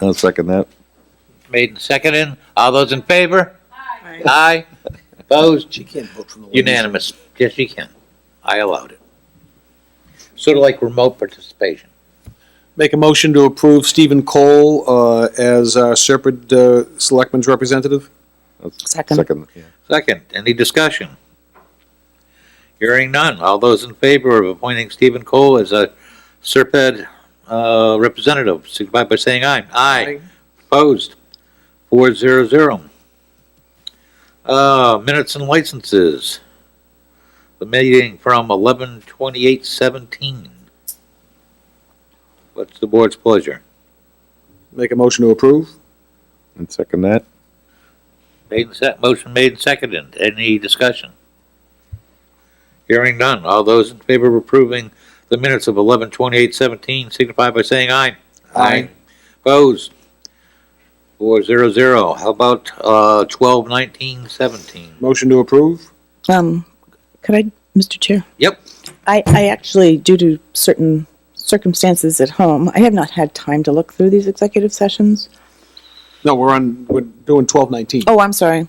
I'll second that. Made and seconded. All those in favor? Aye. Aye. Opposed? She can't vote from the. Unanimous. Yes, you can. I allowed it. Sort of like remote participation. Make a motion to approve Stephen Cole uh, as our Serpent uh, Selectman's representative? I'll Second. Second, yeah. Second, any discussion? Hearing none. All those in favor of appointing Stephen Cole as a Serped, uh, representative, signify by saying aye. Aye. Opposed? Four zero zero. Uh, minutes and licenses. The meeting from eleven twenty-eight seventeen. What's the board's pleasure? Make a motion to approve? And second that. Made and sec, motion made and seconded. Any discussion? Hearing none. All those in favor of approving the minutes of eleven twenty-eight seventeen signify by saying aye. Aye. Opposed? Four zero zero. How about, uh, twelve nineteen seventeen? Motion to approve? Um, could I, Mr. Chair? Yep. I, I actually, due to certain circumstances at home, I have not had time to look through these executive sessions. No, we're on, we're doing 1219. Oh, I'm sorry.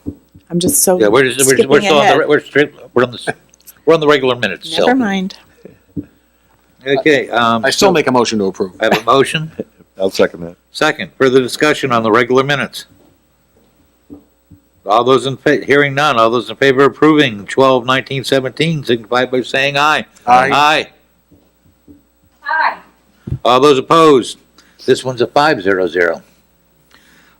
I'm just so Yeah, we're just, we're, just- we're skipping still on the, re- ahead. we're straight, we're on the, s- we're on the regular minutes, so. Never mind. Okay, um, I still make a motion to approve. I have a motion. I'll second that. Second, further discussion on the regular minutes. All those in, fa- hearing none, all those in favor of approving 12, 19, 17, signify by saying aye. Aye. Aye. Aye. All those opposed? This one's a five zero zero.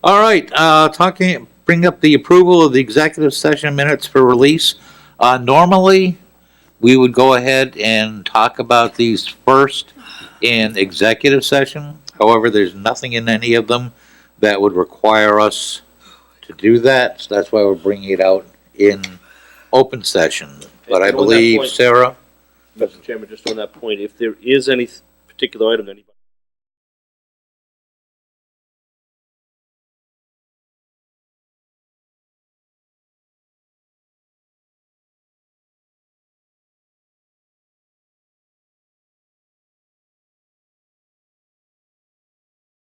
All right, uh, talking, bring up the approval of the executive session minutes for release. Uh, normally, we would go ahead and talk about these first in executive session. However, there's nothing in any of them that would require us to do that. So that's why we're bringing it out in open session. But I And on that believe, point- Sarah? Mr. Chairman, just on that point, if there is any particular item that